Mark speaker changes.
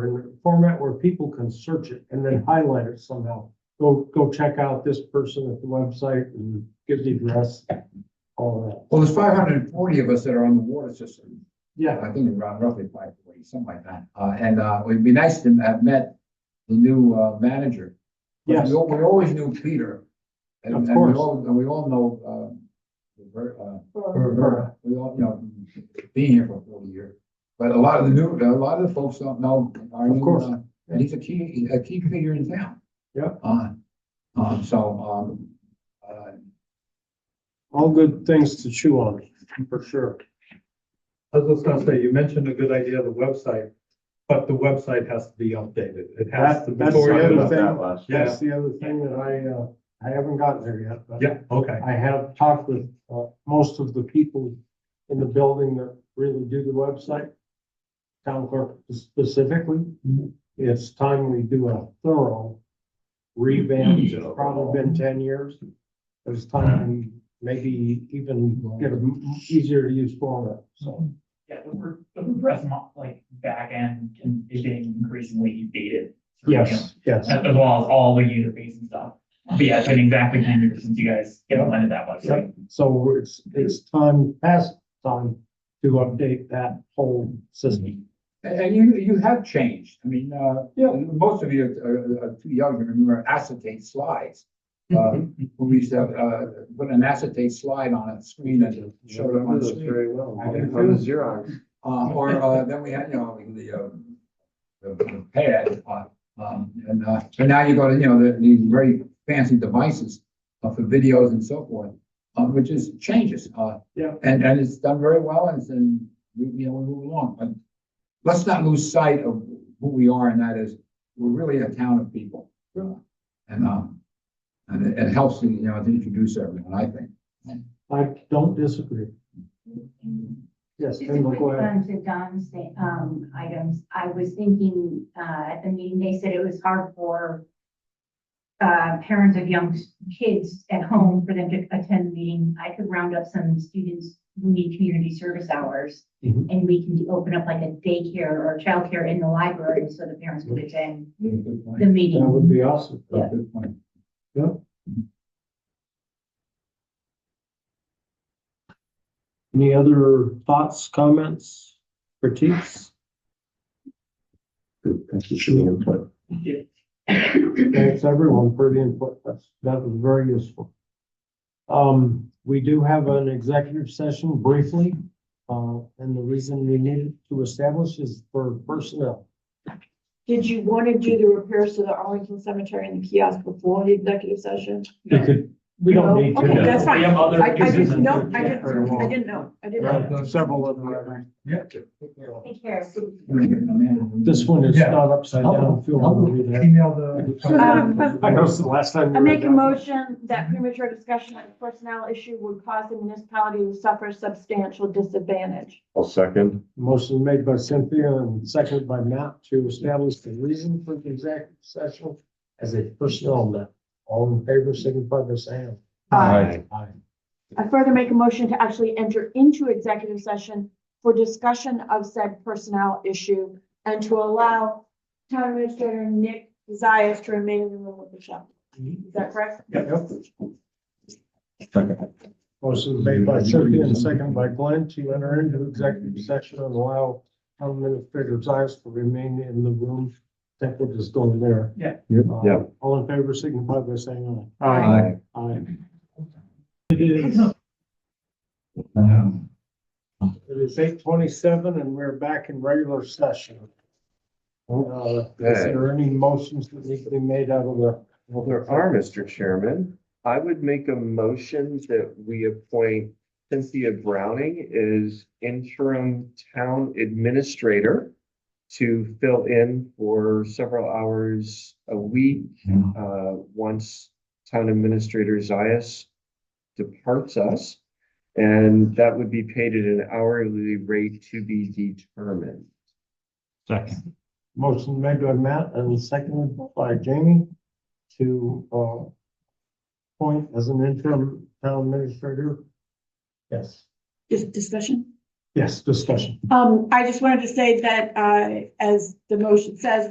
Speaker 1: or in a format where people can search it and then highlight it somehow. Go, go check out this person at the website and give the address, all that.
Speaker 2: Well, there's five hundred and forty of us that are on the water system.
Speaker 1: Yeah,
Speaker 2: I think around roughly five forty, something like that. Uh, and, uh, it'd be nice to have met the new, uh, manager. But
Speaker 1: yes,
Speaker 2: We al- we always knew Peter. And,
Speaker 1: Of
Speaker 2: and we
Speaker 1: course.
Speaker 2: all, and we all know, uh, Ver- uh,
Speaker 1: Ver- Vera.
Speaker 2: We all, you know, being here for forty years, but a lot of the new, a lot of the folks don't know. our
Speaker 1: Of
Speaker 2: new,
Speaker 1: course.
Speaker 2: uh, And he's a key, a key figure in town.
Speaker 1: Yeah.
Speaker 2: Uh, um, so, um, uh,
Speaker 1: all good things to chew on, for sure.
Speaker 3: I was just gonna say, you mentioned a good idea, the website, but the website has to be updated. It has to.
Speaker 1: That- that's
Speaker 3: before
Speaker 1: the
Speaker 3: you-
Speaker 1: other
Speaker 4: about that
Speaker 1: thing.
Speaker 4: last year.
Speaker 1: That's the other thing that I, uh, I haven't gotten there yet, but.
Speaker 3: Yeah, okay.
Speaker 1: I have talked with, uh, most of the people in the building that really do the website. Town clerk specifically, it's time we do a thorough revamp, it's probably been ten years. It's time we maybe even get a easier to use format, so.
Speaker 5: Yeah, the word, the WordPress mo- like backend can, is getting increasingly dated. you know,
Speaker 1: Yes, yes,
Speaker 5: As as well as all the user base and stuff. But yeah, it's been exactly ten years since you guys implemented that website.
Speaker 1: yep, so it's, it's time, past time to update that whole system.
Speaker 2: and, and you, you have changed. I mean, uh,
Speaker 1: Yeah.
Speaker 2: most of you are, are too young to remember acetate slides. Uh, we used to, have, uh, put an acetate slide on a screen and showed it on the screen.
Speaker 1: Very well.
Speaker 2: I didn't
Speaker 4: From the Xerox.
Speaker 2: Uh, or, uh, then we had, you know, the, uh, the- the pad, uh, um, and, uh, but now you go to, you know, the, these very fancy devices uh, for videos and so forth, uh, which is changes, uh.
Speaker 1: Yeah.
Speaker 2: And, and it's done very well and it's, and, we- you know, we move along, but let's not lose sight of who we are and that is, we're really a town of people. And, um, and it, it helps, you know, to introduce everyone, I think.
Speaker 1: I don't disagree. Yes,
Speaker 6: Just a
Speaker 1: Kendall,
Speaker 6: quick
Speaker 1: go ahead.
Speaker 6: one to Don's thing, um, items. I was thinking, uh, at the meeting, they said it was hard for uh, parents of young s- kids at home for them to attend the meeting. I could round up some students who need community service hours.
Speaker 1: Mhm.
Speaker 6: And we can open up like a daycare or childcare in the library so the parents could attend
Speaker 2: Good point.
Speaker 6: the
Speaker 1: That
Speaker 6: meeting.
Speaker 1: would be
Speaker 7: um,
Speaker 1: awesome.
Speaker 2: Good point.
Speaker 1: Any other thoughts, comments, critiques?
Speaker 4: Thank you for the input.
Speaker 1: Thanks everyone for the input. That's, that was very useful. Um, we do have an executive session briefly, uh, and the reason we needed to establish is for personnel.
Speaker 7: Did you want to do the repairs to the Arlington Cemetery and the kiosk before the executive session?
Speaker 1: We could, we don't
Speaker 7: No?
Speaker 1: need to.
Speaker 7: Oh, Okay, that's fine.
Speaker 5: We have other
Speaker 7: I, I
Speaker 5: users
Speaker 7: just,
Speaker 5: and-
Speaker 7: no, I didn't, I didn't know, I didn't know.
Speaker 1: Right, Several of them.
Speaker 6: Take care.
Speaker 1: This one is
Speaker 3: Yeah.
Speaker 1: not upside down. Feel free to read
Speaker 3: Email the.
Speaker 7: Um,
Speaker 1: that. I know it's the last time. we
Speaker 7: I
Speaker 1: were
Speaker 7: make a
Speaker 1: down.
Speaker 7: motion that
Speaker 1: Mm-hmm.
Speaker 7: premature discussion of the personnel issue would cause the municipality to suffer substantial disadvantage.
Speaker 4: I'll second.
Speaker 1: Motion made by Cynthia and seconded by Matt to establish the reason for the executive session as a personnel matter. All in favor, signify by saying aye. Aye.
Speaker 7: I further make a motion to actually enter into executive session for discussion of said personnel issue and to allow town administrator Nick Zias to remain in the room with Michelle. Is that correct?
Speaker 1: Motion made by Cynthia and seconded by Glenn to enter into executive session and allow town administrator Zias to remain in the room. I think we're just going there. Uh,
Speaker 4: Yeah.
Speaker 1: All in favor, signify by saying aye.
Speaker 4: Aye.
Speaker 1: Aye. It is. It is eight twenty-seven and we're back in regular session. Uh, Is there any motions that need to be made out of the?
Speaker 4: Well, there are, Mr. Chairman. I would make a motion that we appoint Cynthia Browning as interim town administrator to fill in for several hours a week, uh, once town administrator Zias departs us. And that would be paid at an hourly rate to be determined.
Speaker 1: Motion made by Matt and seconded by Jamie to, uh, appoint as an interim town administrator. Yes.
Speaker 7: Dis- Discussion?
Speaker 1: Yes, discussion.
Speaker 7: Um, I just wanted to say that, uh, as the motion says,